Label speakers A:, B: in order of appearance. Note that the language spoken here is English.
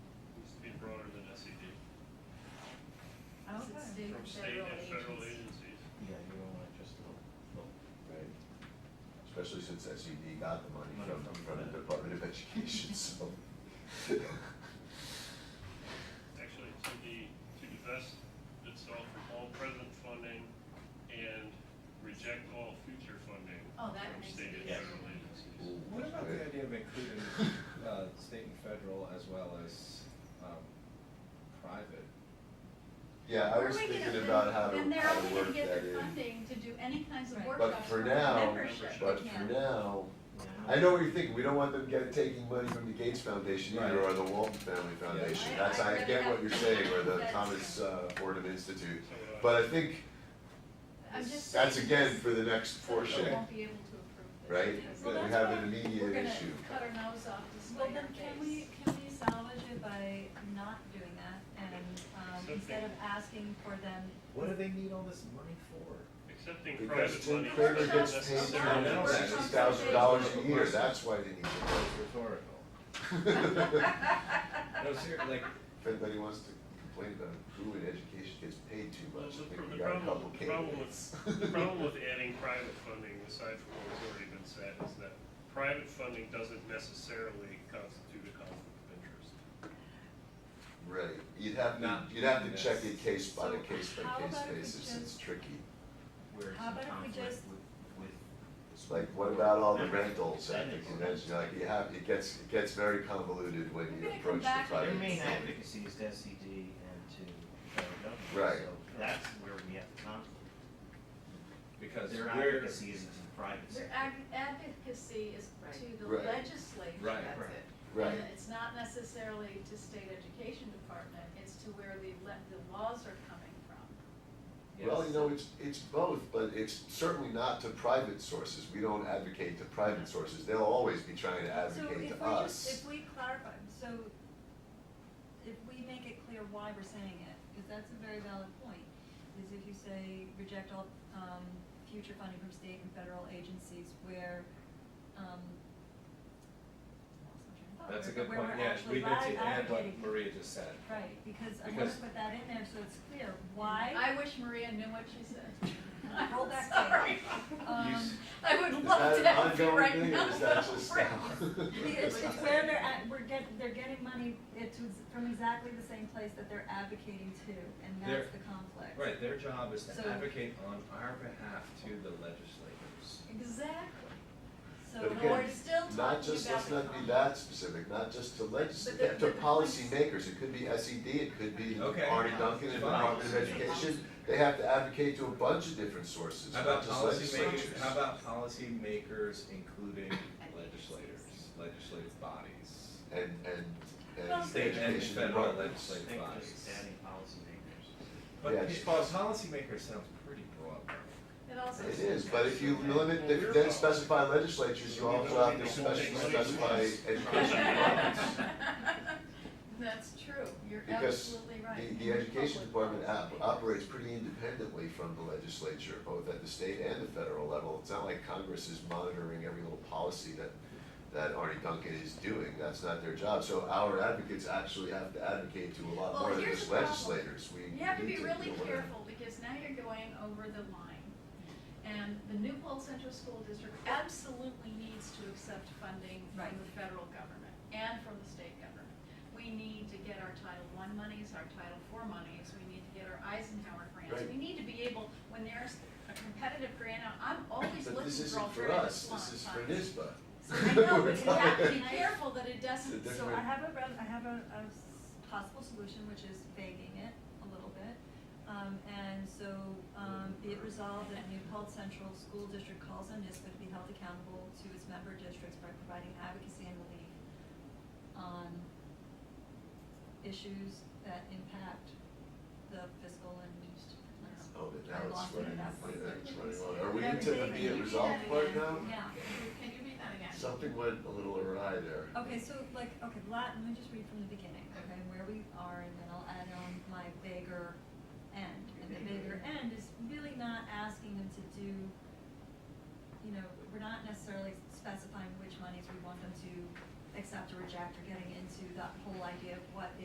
A: E from state
B: Federal
A: and federal
B: agencies.
A: agencies.
C: Yeah, you don't want just the, the,
D: right? Especially since SED got the money
C: Money
D: from,
C: from
D: from
C: that.
D: the Department of Education, so.
A: Actually, to the, to divest itself from all present funding and reject all future funding
B: Oh, that
A: from
B: makes
A: state and
B: it
C: easier.
A: federal agencies.
E: What about the idea of including, uh, state and federal as well as, um, private?
D: Yeah, I was
B: Where are we gonna-
D: thinking about how to,
B: Then they're
D: how
B: only
D: to
B: gonna
D: work that
B: get the
D: in.
B: funding to do any kinds of
F: Right.
D: But
B: workshops
D: for
B: for
D: now,
B: membership.
D: but for
B: Yeah.
D: now,
C: yeah.
D: I know what you're thinking, we don't want them get, taking money from the Gates Foundation either,
E: Right.
D: or the Walton Family Foundation,
B: I-
D: that's,
B: I
D: I
B: read
D: get what
B: that.
D: you're saying, or the
B: That's-
D: Thomas uh, Fordham Institute.
A: So, uh,
D: But I think
B: I'm just
D: that's
B: saying
D: again
B: this,
D: for the next
B: so
D: portion,
B: We
E: Okay.
B: won't be able to approve this.
D: right?
B: because
E: Well,
D: That we
B: we're
E: that's
D: have an
B: gonna
D: immediate issue.
B: Cut our nose off to
F: Well,
B: spite our
F: then can we,
B: face.
F: can we salvage it by not doing that and, um,
A: Something.
F: instead of asking for them,
E: What do they need all this money for?
A: Accepting
D: Because
A: private
D: Tim
A: money
D: Kramer
A: is not
D: gets paid
A: necessarily
E: from the
A: necessary.
D: sixty thousand dollars a year, that's why they
E: It's
D: need
E: rhetorical.
D: to know.
E: No, seriously, like,
D: If anybody wants to complain about who in education gets paid too
A: Well,
D: much,
A: the
D: I
A: pr-
D: think we
A: the
D: got a
A: problem-
D: couple
A: the problem
D: candidates.
A: The problem with adding private funding, aside from what has already been said, is that private funding doesn't necessarily constitute a conflict of interest.
D: Right, you'd have to,
E: Not
D: you'd have to
E: this.
D: check it case by
F: So
D: the case by
F: how
D: case
F: about if we
D: basis, it's
F: just-
D: tricky.
C: Where it's
F: How
C: in
F: about if we
C: conflict
F: just-
C: with- with
D: It's like, what about all the rentals at the convention, like, you have, it gets, it gets very convoluted when
B: We're
D: you
B: gonna come
D: approach the
B: back
D: private.
B: with
C: Their main
D: funding.
C: advocacy is to SED E and to federal government.
D: Right.
C: So that's where we have the conflict.
E: because
C: Their
E: we're,
C: advocacy is in the private
B: Their
C: sector.
B: ag- advocacy is to the
D: Right.
B: legislature,
E: Right.
B: that's
C: Right.
B: it.
D: Right,
B: And it's not necessarily to state education department, it's to where the le- the laws are coming from.
D: well,
E: Yes.
D: you know, it's, it's both, but it's certainly not to private sources, we don't advocate to private sources, they'll always be trying to
F: so if we
D: advocate to us.
F: just, if we clarify, so if we make it clear why we're saying it, because that's a very valid point, is if you say reject all, um, future funding from state and federal agencies where, um, I lost my train of thought,
E: that's a
F: where-
E: good
F: where
E: point,
F: we're
E: yeah,
F: actually
E: we need
F: ad-
E: to add what
F: advocating.
E: Maria just said.
F: Right, because I wanna
E: Because-
F: put that in there so it's clear why.
B: I wish Maria knew what she said. I'm
F: Roll back
B: Sorry.
F: Um,
B: I would love
D: Is
B: to
D: that an
B: have it
D: ongoing
B: right
D: thing,
B: now.
D: or is that just now?
F: It's, it's where they're at, we're get, they're getting money, it's from exactly the same place that they're advocating to, and
E: They're-
F: that's the conflict.
E: Right, their job is
F: So-
E: to advocate on our behalf to the legislators.
B: Exactly.
F: So,
D: But
B: But
D: again,
B: we're still talking about
D: Not just, let's
B: the
D: not be
B: con-
D: that specific, not just to
B: But
D: legislators,
B: the-
D: to
B: but the-
D: policymakers, it could be SED, it could be
E: Okay.
D: Arnie Duncan and the
E: Fine.
D: Department of Education. They have to advocate to a bunch of different sources,
E: How
D: not
E: about
D: just legislatures.
E: policymakers, how about policymakers including legislators, legislative bodies?
D: And, and,
B: Well,
D: and
E: State and
D: education
E: federal
D: departments.
E: legislative
C: Think
E: bodies.
C: just adding policymakers.
E: But
D: Yeah,
E: it's-
D: it's-
E: but policymaker sounds pretty broad.
B: It also.
D: It is, but if you limit, if you then specify legislatures, you also have to specially specify education departments.
B: That's true, you're
D: Because
B: absolutely right.
D: the,
B: And
D: the education
B: public
D: department op-
B: policy.
D: operates pretty independently from the legislature, both at the state and the federal level. It's not like Congress is monitoring every little policy that, that Arnie Duncan is doing, that's not their job. So our advocates actually have to advocate to a lot
B: Well,
D: more than
B: here's
D: just
B: the problem.
D: legislators, we
B: You have to
D: need
B: be
D: to
B: really
D: do whatever.
B: careful, because now you're going over the line. And the New Paltz Central School District absolutely needs to accept funding from
F: Right.
B: the federal government and from the state government. We need to get our Title I monies, our Title IV monies, we need to get our Eisenhower grants.
D: Right.
B: We need to be able, when there's a competitive grant out, I'm always
D: But
B: looking
D: this isn't
B: for
D: for
B: alternative
D: us,
B: funds.
D: this is for NISBA.
B: So I know,
D: We're
B: but you have to be
D: talking-
B: careful that it doesn't,
D: It's a
F: so I
D: different-
F: have a, re- I have a, a s- possible solution, which is vaguing it a little bit. Um, and so, um, be it resolved that New Paltz Central School District calls on NISBA to be held accountable to its member districts by providing advocacy and relief on issues that impact the fiscal and.
D: Oh, but
F: I
D: now
F: lost
D: it's
F: it at
D: running,
F: that point.
D: it's running on. Are we
B: Everything.
D: into the
B: Can
D: be
B: you
D: it
B: do
D: resolved
B: that
D: part
B: again?
D: now?
F: Yeah.
B: Can you read that again?
D: Something went a little awry there.
F: Okay, so like, okay, la let me just read from the beginning, okay, where we are, and then I'll add on my bigger end. And the bigger end is really not asking them to do, you know, we're not necessarily specifying which monies we want them to accept or reject, or getting into that whole idea of what